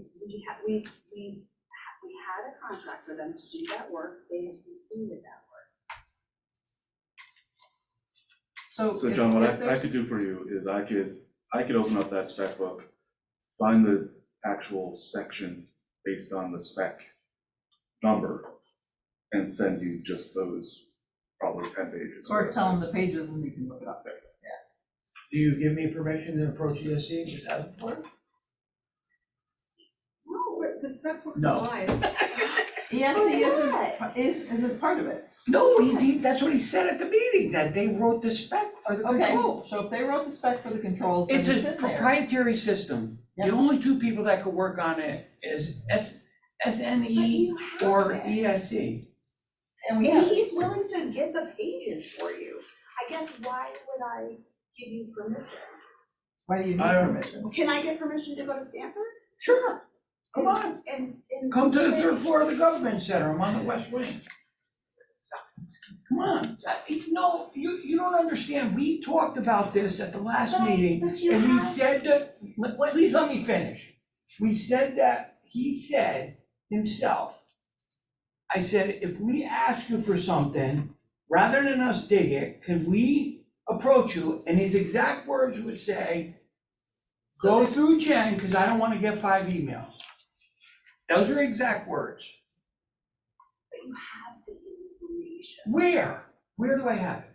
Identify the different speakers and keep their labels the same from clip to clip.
Speaker 1: we had, we, we, ha- we had a contract for them to do that work, they have completed that work.
Speaker 2: So.
Speaker 3: So
Speaker 2: if-
Speaker 3: John, what
Speaker 2: if
Speaker 3: I, I
Speaker 2: there's-
Speaker 3: could do for you is I could, I could open up that spec book, find the actual section based on the spec number, and send you just those, probably ten pages.
Speaker 2: Or tell them the pages and you can look it up there.
Speaker 4: Do you give me permission to approach E ESC without?
Speaker 5: No, we're- the spec book's
Speaker 4: No.
Speaker 5: alive.
Speaker 1: Oh,
Speaker 2: ESC isn't,
Speaker 1: But
Speaker 2: is, isn't part of it.
Speaker 4: No, he did, that's what he said at the meeting, that they wrote the spec for the
Speaker 2: Okay,
Speaker 4: controls.
Speaker 2: so if they wrote the spec for the controls, then
Speaker 4: It's
Speaker 2: it's in there.
Speaker 4: a proprietary system. The
Speaker 2: Yeah.
Speaker 4: only two people that could work on it is S, SNE
Speaker 1: you have
Speaker 4: or E
Speaker 1: it.
Speaker 4: ESC.
Speaker 2: And we
Speaker 1: And
Speaker 2: have,
Speaker 1: he's willing to get the pages for you, I guess why would I give you permission?
Speaker 2: why do you need
Speaker 4: I don't-
Speaker 2: permission?
Speaker 1: Can I get permission to go to Stanford?
Speaker 4: Sure, come on,
Speaker 1: And, and.
Speaker 4: come to the third floor of the government center, I'm on the west wing. Come on, I- no, you, you don't understand, we talked about this at the last
Speaker 1: But-
Speaker 4: meeting.
Speaker 1: But you
Speaker 4: And we
Speaker 1: have,
Speaker 4: said that, let- let- please let me finish. We said that, he said himself, I said, if we ask you for something, rather than us dig it, can we approach you? And his exact words would say, go through Jen, because I don't want to get five emails. Those are exact words.
Speaker 1: but you have the information,
Speaker 4: Where? Where do I have it?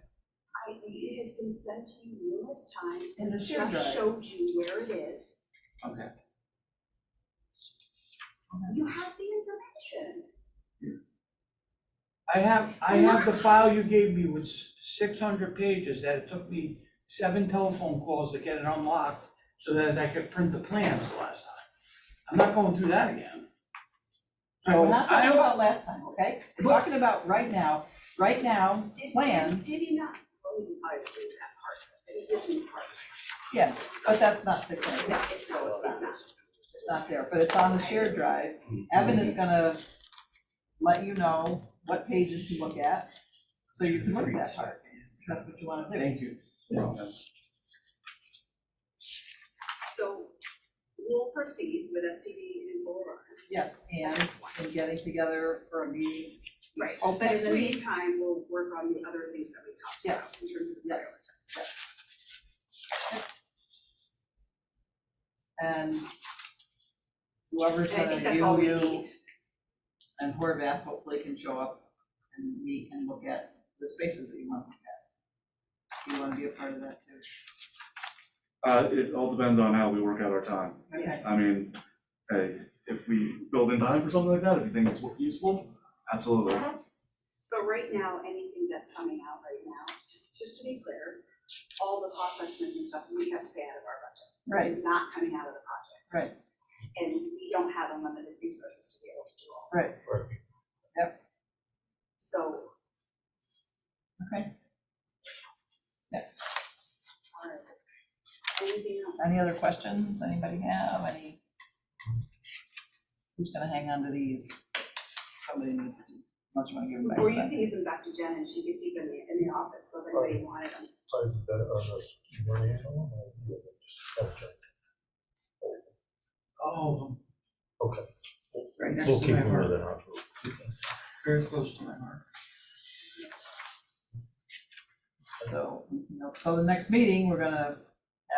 Speaker 1: I, it has been sent to you numerous times,
Speaker 2: In
Speaker 1: and
Speaker 2: the
Speaker 1: it
Speaker 2: shared drive.
Speaker 1: just showed you where it is.
Speaker 4: Okay.
Speaker 1: You have the information.
Speaker 4: I have, I have the file you gave me with six hundred pages that it took me seven telephone calls to get it unlocked so that I could print the plans the last time. I'm not going through that again.
Speaker 2: Alright,
Speaker 4: So
Speaker 2: We're not
Speaker 4: I
Speaker 2: talking
Speaker 4: don't,
Speaker 2: about last time, okay? We're talking about right now, right now,
Speaker 1: Did- did-
Speaker 2: Plans.
Speaker 1: Did he not, well, he probably didn't do that part, but he did do parts.
Speaker 2: yeah, but that's not six hundred,
Speaker 1: No, it's not, it's not.
Speaker 2: it's not there, but it's on the shared drive. Evan is gonna let you know what pages to look at, so you can look at that part, if that's what you wanna do.
Speaker 4: thank you.
Speaker 1: So we'll proceed with STV and Boulevard.
Speaker 2: Yes, and we're getting together for a meeting.
Speaker 1: Right,
Speaker 2: Oh,
Speaker 1: But in the
Speaker 2: next week.
Speaker 1: meantime, we'll work on the other things that we talked about in terms of the
Speaker 2: Yes.
Speaker 1: priorities.
Speaker 2: And whoever's
Speaker 1: And I
Speaker 2: gonna
Speaker 1: think that's all
Speaker 2: view
Speaker 1: we
Speaker 2: you
Speaker 1: need.
Speaker 2: and Horvath hopefully can show up and meet and look at the spaces that you want to look at. You wanna be a part of that too.
Speaker 3: Uh, it all depends on how we work out our time.
Speaker 2: Okay.
Speaker 3: I mean, hey, if we build in time for something like that, if you think it's useful, absolutely.
Speaker 1: But right now, anything that's coming out right now, just, just to be clear, all the cost estimates and stuff, we have to pay out of our budget. This is not coming out of the project.
Speaker 2: Right.
Speaker 1: And we don't have unlimited resources to be able to do all.
Speaker 2: Right.
Speaker 1: Yep. So.
Speaker 2: Okay. Yeah.
Speaker 1: All right. Anything else?
Speaker 2: Any other questions anybody have, any? Who's gonna hang on to these? Somebody needs to, much wanna give them back.
Speaker 1: Or you
Speaker 2: but-
Speaker 1: can give them back to Jen and she could keep them in the, in the office, so if anybody wanted them.
Speaker 6: Sorry, that uh, are those money at all, or you have just subject?
Speaker 4: Oh,
Speaker 6: Okay,
Speaker 4: right next
Speaker 6: we'll
Speaker 4: to
Speaker 6: keep
Speaker 4: my
Speaker 6: them where
Speaker 4: heart,
Speaker 6: they're not.
Speaker 4: very close to my heart.
Speaker 2: So, you know, so the next meeting, we're gonna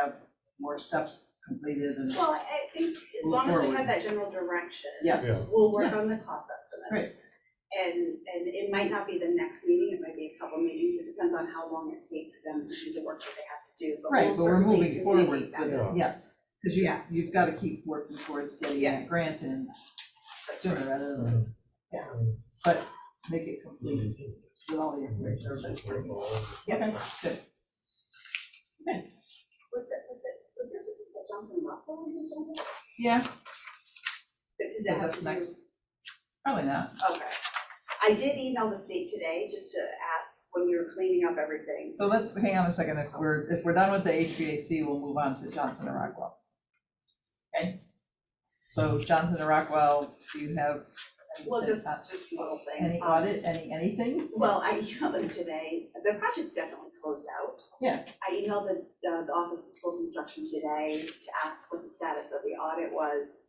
Speaker 2: have more steps completed and,
Speaker 1: Well, I think as
Speaker 2: Move
Speaker 1: long as we
Speaker 2: forward.
Speaker 1: have that general direction.
Speaker 2: yes,
Speaker 1: We'll work on the cost estimates. And, and it might not be the next meeting, it might be a couple meetings, it depends on how long it takes them to do the work that they have to do, but
Speaker 2: Right,
Speaker 1: we'll
Speaker 2: but we're
Speaker 1: certainly
Speaker 2: moving
Speaker 1: communicate
Speaker 2: forward
Speaker 1: that.
Speaker 6: Yeah.
Speaker 2: yes. Cause you,
Speaker 1: Yeah.
Speaker 2: you've gotta keep working towards getting
Speaker 1: Yeah.
Speaker 2: that grant in
Speaker 1: That's
Speaker 2: sooner rather than make it complete with all the information. everybody's working. Okay, good.
Speaker 1: Was that, was that, was there something that Johnson Rockwell was doing?
Speaker 2: Yeah,
Speaker 1: But does that
Speaker 2: that's
Speaker 1: have
Speaker 2: us
Speaker 1: to do?
Speaker 2: next. Probably not.
Speaker 1: Okay. I did email the state today just to ask when we were cleaning up everything.
Speaker 2: So let's, hang on a second, if we're, if we're done with the HVAC, we'll move on to Johnson and Rockwell. Okay? So Johnson and Rockwell, do you have anything
Speaker 1: Well, just,
Speaker 2: on-
Speaker 1: just a little thing.
Speaker 2: Any
Speaker 1: Um,
Speaker 2: audit, any, anything?
Speaker 1: Well, I emailed them today, the project's definitely closed out.
Speaker 2: Yeah.
Speaker 1: I uh, emailed the, the the Office of School Construction today to ask what the status of the audit was.